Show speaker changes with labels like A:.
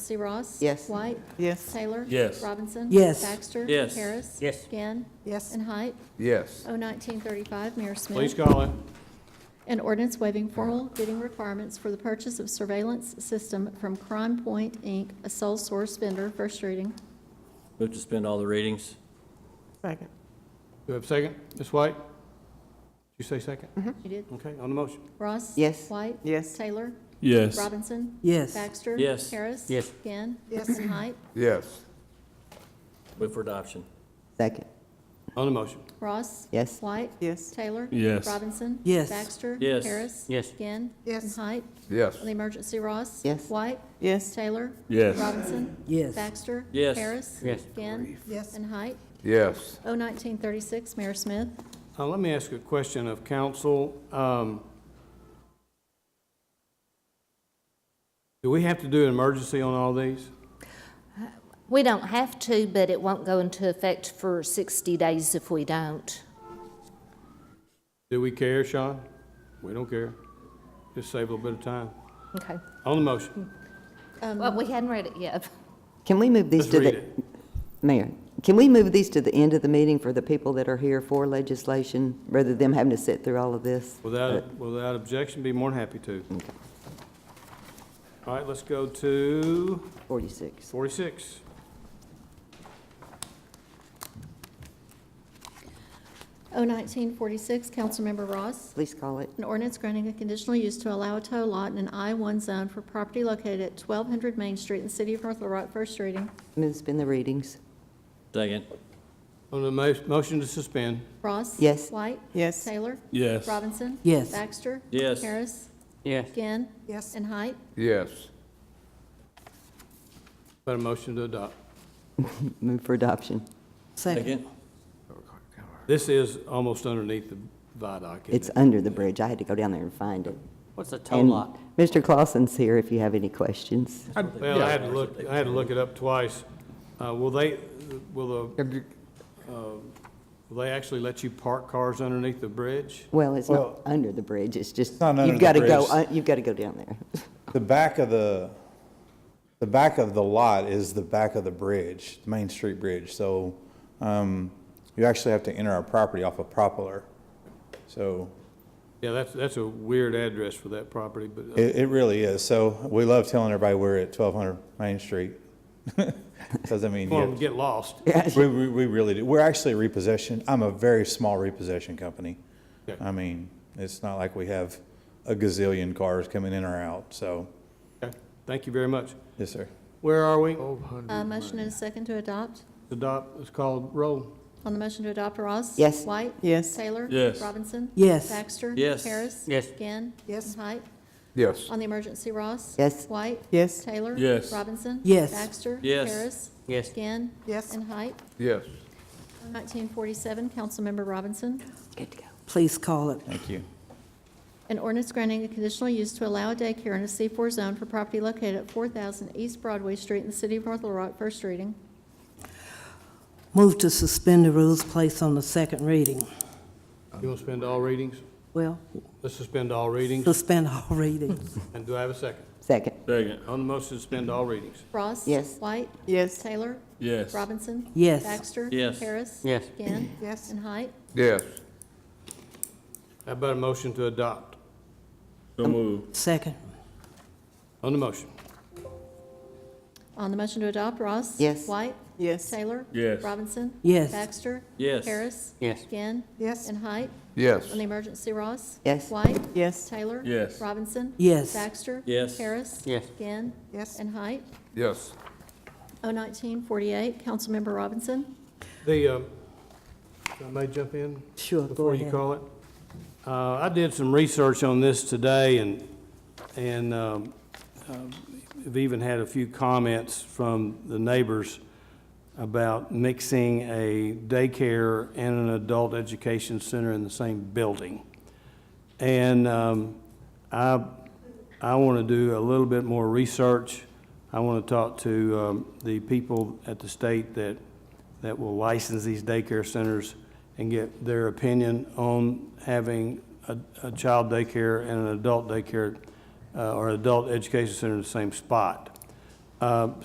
A: Trustee Ross?
B: Yes.
A: White?
C: Yes.
A: Taylor?
D: Yes.
A: Robinson?
E: Yes.
A: Baxter?
D: Yes.
A: Harris?
F: Yes.
A: Gann?
C: Yes.
A: And Height?
G: Yes.
A: O nineteen thirty-five, Mayor Smith.
H: Please call it.
A: An ordinance waiving formal bidding requirements for the purchase of surveillance system from Crime Point, Inc., a sole source vendor, first reading.
D: Move to suspend all the readings?
C: Second.
H: Do we have a second? Ms. White? Did you say second?
A: You did.
H: Okay, on the motion.
A: Ross?
B: Yes.
A: White?
C: Yes.
A: Taylor?
D: Yes.
A: Robinson?
E: yes,
A: Baxter?
D: Yes.
A: Harris?
F: Yes.
A: Gann?
C: Yes.
A: And Height?
G: Yes.
D: Move for adoption?
B: Second.
H: On the motion.
A: Ross?
B: Yes.
A: White?
C: Yes.
A: Taylor?
D: Yes.
A: Robinson?
E: Yes.
A: Baxter?
D: Yes.
A: Harris?
F: Yes.
A: Gann?
C: Yes.
A: And Height?
G: Yes.
A: On the emergency, Ross?
B: Yes.
A: White?
C: Yes.
A: Taylor?
D: Yes.
A: Robinson?
E: yes,
A: Baxter?
D: Yes.
A: Harris?
F: Yes.
A: Gann?
C: Yes.
A: And Height?
G: Yes.
A: O nineteen thirty-six, Mayor Smith.
H: Uh, Let me ask a question of council. Um, Do we have to do an emergency on all these?
I: We don't have to, but it won't go into effect for 60 days if we don't.
H: Do we care, Sean? We don't care. Just save a little bit of time.
I: Okay.
H: On the motion.
I: Well, we hadn't read it yet.
B: Can we move these
H: Let's
B: to
H: read
B: the,
H: it.
B: Mayor, can we move these to the end of the meeting for the people that are here for legislation, rather than them having to sit through all of this?
H: Without, without objection, be more than happy to. All right, let's go to
B: Forty-six.
H: 46.
A: O nineteen forty-six, Councilmember Ross.
B: Please call it.
A: An ordinance granting a conditional use to allow a tow lot in an I-one zone for property located at twelve hundred Main Street in the city of North Little Rock, first reading.
B: Move to suspend the readings.
D: Second?
H: On the mo- motion to suspend.
A: Ross.
B: Yes.
A: White.
C: Yes.
A: Taylor.
D: Yes.
A: Robinson.
E: Yes.
A: Baxter.
D: Yes.
A: Harris.
F: Yes.
A: Gann.
C: Yes.
A: And Height.
G: Yes.
H: Got a motion to adopt.
B: Move for adoption.
E: second,
D: Second?
H: This is almost underneath the viaduct,
B: It's
H: isn't it?
B: under the bridge. I had to go down there and find it.
F: What's a tow
B: And
F: lot?
B: Mr. Clausen's here if you have any questions.
H: Well, I had to look, I had to look it up twice. Uh, Will they, will the, uh,
G: And you-
H: will they actually let you park cars underneath the bridge?
B: Well, it's not
J: Well,
B: under the bridge, it's just,
J: not under
B: you've
J: the
B: got to go,
J: bridge.
B: uh, you've got to go down there.
J: The back of the, the back of the lot is the back of the bridge, the Main Street Bridge. So um, you actually have to enter our property off of Poplar. So
H: Yeah, that's, that's a weird address for that property, but uh,
J: it, it really is. So we love telling everybody we're at 1200 Main Street. Because I mean,
H: well,
J: yeah,
H: get lost.
J: we, we we really do. We're actually repossession. I'm a very small repossession company.
H: Okay.
J: I mean, it's not like we have a gazillion cars coming in or out. So,
H: Okay, Thank you very much.
J: yes, sir.
H: Where are we?
A: Uh, motion and a second to adopt.
H: Adopt, it's called roll.
A: On the motion to adopt, Ross.
B: Yes.
A: White.
C: Yes.
A: Taylor.
D: Yes.
A: Robinson.
E: Yes.
A: Baxter.
D: Yes.
A: Harris.
F: Yes.
A: Gann.
C: Yes.
A: And Height.
G: Yes.
A: On the emergency, Ross.
B: Yes.
A: White.
C: Yes.
A: Taylor.
D: Yes.
A: Robinson.
E: Yes.
A: Baxter.
D: Yes.
A: Harris.
F: Yes.
A: Gann.
C: Yes.
A: And Height.
G: Yes.
A: 1947, Councilmember Robinson.
B: Good to go.
E: please call it,
J: Thank you.
A: An ordinance granting a conditional use to allow a daycare in a C4 zone for property located at 4,000 East Broadway Street in the city of North Little Rock, first reading.
E: move to suspend the rules, place on the second reading.
H: You want to spend all readings?
E: Well,
H: Let's suspend all readings.
E: suspend all readings,
H: And do I have a second?
B: Second.
D: Second?
H: On the motion, suspend all readings.
A: Ross.
B: Yes.
A: White.
C: Yes.
A: Taylor.
D: Yes.
A: Robinson.
E: Yes.
A: Baxter.
D: Yes.
A: Harris.
F: Yes.
A: Gann.
C: Yes.
A: And Height.
G: Yes.
H: How about a motion to adopt?
D: So move.
E: second,
H: On the motion.
A: On the motion to adopt, Ross.
B: Yes.
A: White.
C: Yes.
A: Taylor.
D: Yes.
A: Robinson.
E: Yes.
A: Baxter.
D: Yes.
A: Harris.
F: Yes.
A: Gann.
C: Yes.
A: And Height.
G: Yes.
A: On the emergency, Ross.
B: Yes.
A: White.
C: Yes.
A: Taylor.
D: Yes.
A: Robinson.
E: Yes.
A: Baxter.
D: Yes.
A: Harris.
F: Yes.
A: Gann.
C: Yes.
A: And Height.
G: Yes.
A: O nineteen forty-eight, Councilmember Robinson.
H: The, uh, if I may jump in?
E: Sure, go
H: Before you
E: ahead.
H: call it? Uh, I did some research on this today and, and um, um, I've even had a few comments from the neighbors about mixing a daycare and an adult education center in the same building. And um, I, I want to do a little bit more research. I want to talk to um, the people at the state that, that will license these daycare centers and get their opinion on having a, a child daycare and an adult daycare uh, or adult education center in the same spot. Uh,